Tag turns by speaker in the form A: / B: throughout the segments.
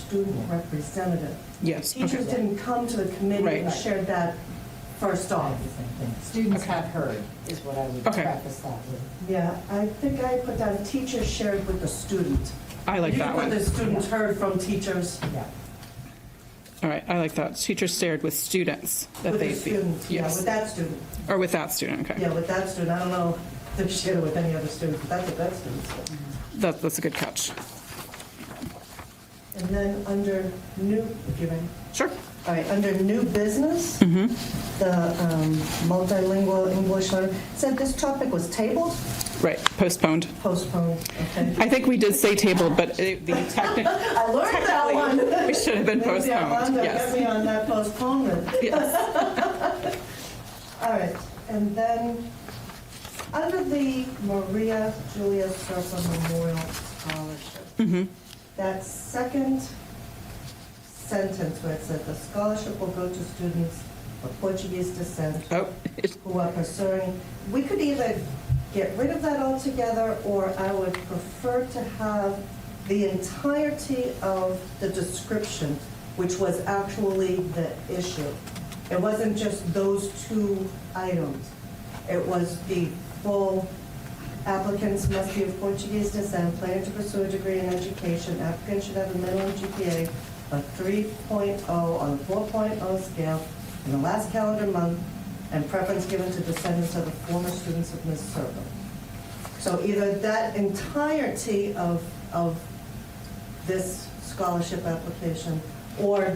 A: student representative.
B: Yes,
A: Teachers
B: okay.
A: didn't come to the committee and
B: Right.
A: shared that first off.
C: Students
B: Okay.
C: have heard, is what I would
B: Okay.
C: preface that with.
A: Yeah, I think I put down teachers shared with the student.
B: I like that
A: You
B: one.
A: could put the students heard from teachers
C: Yeah.
B: All right, I like that. Teachers shared with students that
A: with
B: they
A: the student, yeah, with
B: Yes,
A: that student.
B: or with that student, okay.
A: Yeah, with that student, I don't know if they shared it with any other student, but that's what that student said.
B: That, that's a good catch.
A: And then under new, if you're ready.
B: Sure.
A: All right, under new business,
B: Mm-hmm.
A: the um, multilingual English learner, said this topic was tabled,
B: Right, postponed.
A: postponed, okay.
B: I think we did say tabled, but it- the technical,
A: I learned that one.
B: it should have been
A: Maybe
B: postponed,
A: Armando get
B: yes.
A: me on that postponement.
B: Yes.
A: All right, and then, under the Maria Julia Serpa Memorial Scholarship,
B: Mhm.
A: that second sentence where it said, "The scholarship will go to students of Portuguese descent
B: Oh, it-
A: who are pursuing," we could either get rid of that altogether, or I would prefer to have the entirety of the description, which was actually the issue. It wasn't just those two items. It was the full applicants must be of Portuguese descent, planning to pursue a degree in education. Applicants should have a minimum GPA of 3.0 on the 4.0 scale in the last calendar month, and preference given to descendants of the former students of Ms. Serpa. So either that entirety of, of this scholarship application, or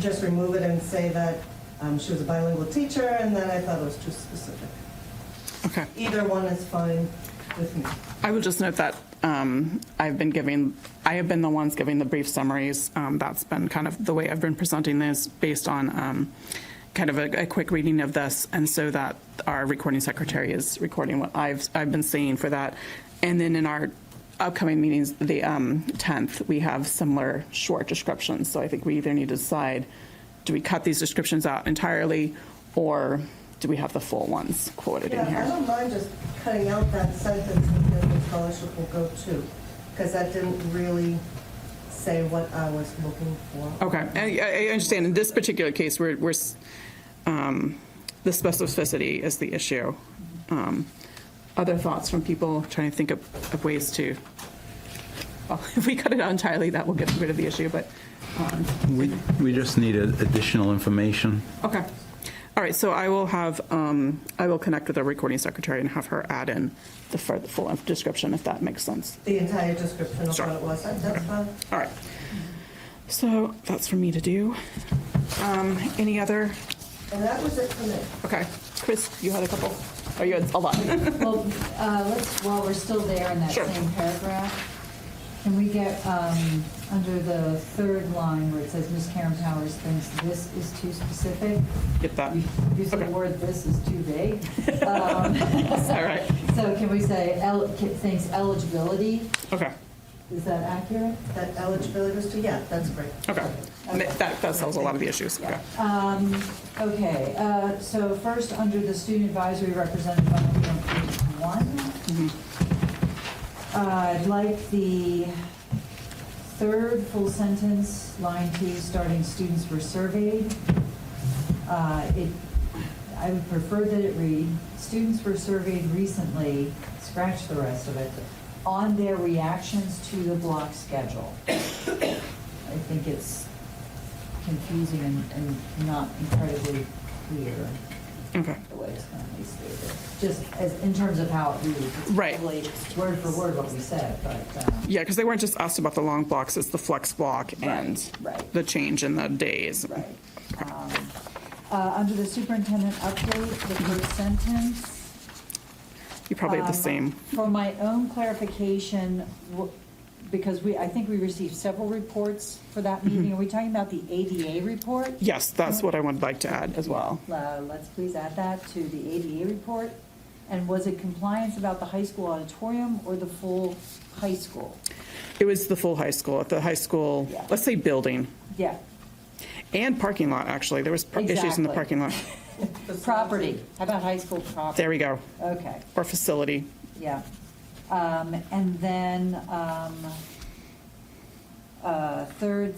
A: just remove it and say that um, she was a bilingual teacher, and then I thought it was too specific.
B: okay.
A: Either one is fine with me.
B: I will just note that um, I've been giving, I have been the ones giving the brief summaries. Um, That's been kind of the way I've been presenting this, based on um, kind of a a quick reading of this, and so that our recording secretary is recording what I've, I've been saying for that. And then in our upcoming meetings, the um, 10th, we have similar short descriptions. So I think we either need to decide, do we cut these descriptions out entirely, or do we have the full ones quoted in
A: Yeah, I
B: here?
A: don't mind just cutting out that sentence because the scholarship will go to, because that didn't really say what I was looking for.
B: Okay, I- I, I understand, in this particular case, we're, we're, s- um, the specificity is the issue. Um, Other thoughts from people, trying to think of, of ways to, well, if we cut it out entirely, that will get rid of the issue, but, um,
D: We, we just needed additional information.
B: okay. All right, so I will have, um, I will connect with our recording secretary and have her add in the fur- the full description, if that makes sense.
A: The entire description of
B: Sure.
A: what it was, That- that's fine.
B: All right. So that's for me to do. Um, Any other
A: And that was it for me.
B: Okay, Chris, you had a couple, or you had a lot.
C: Well, uh, let's, while we're still there in that
B: Sure.
C: same paragraph, can we get, um, under the third line where it says, Ms. Karen Powers thinks this is too specific?
B: Get that.
C: You- You said
B: Uh,
C: the
B: Okay.
C: word "this" is too vague. Um,
B: All right.
C: So can we say, el- thinks eligibility,
B: Okay,
C: is that accurate?
A: That eligibility was to, yeah, that's great.
B: okay. Ma- That, that solves a lot of the issues, okay.
C: Um, Okay, uh, so first, under the student advisory representative, I'm on page
B: Mm-hmm.
C: one. Uh, I'd like the third full sentence, line two, starting students were surveyed. Uh, It, I would prefer that it read, students were surveyed recently, scratch the rest of it, on their reactions to the block schedule. I think it's confusing and, and not incredibly clear
B: Okay,
C: the way it's currently stated. Just as, in terms of how it reads. It's
B: Right.
C: probably Word for word what we said, but, um,
B: yeah, because they weren't just asked about the long blocks, it's the flex block and
C: right.
B: the change in the days.
C: right. Um, uh, under the superintendent update, the first sentence.
B: You probably have the
C: um,
B: same,
C: For my own clarification, w- because we, I think we received several reports for that
B: Mm-hmm.
C: meeting. Are we talking about the ADA report?
B: yes, that's what I would like to add as well.
C: Uh, Let's please add that to the ADA report. And was it compliance about the high school auditorium or the full high school?
B: It was the full high school, at the high school,
C: Yeah.
B: let's say building,
C: Yeah,
B: and parking lot, actually, there was par- issues in the
C: Exactly.
B: parking lot.
C: property. How about high school property?
B: There we go,
C: Okay,
B: or facility,
C: yeah. Um, And then, um, uh, third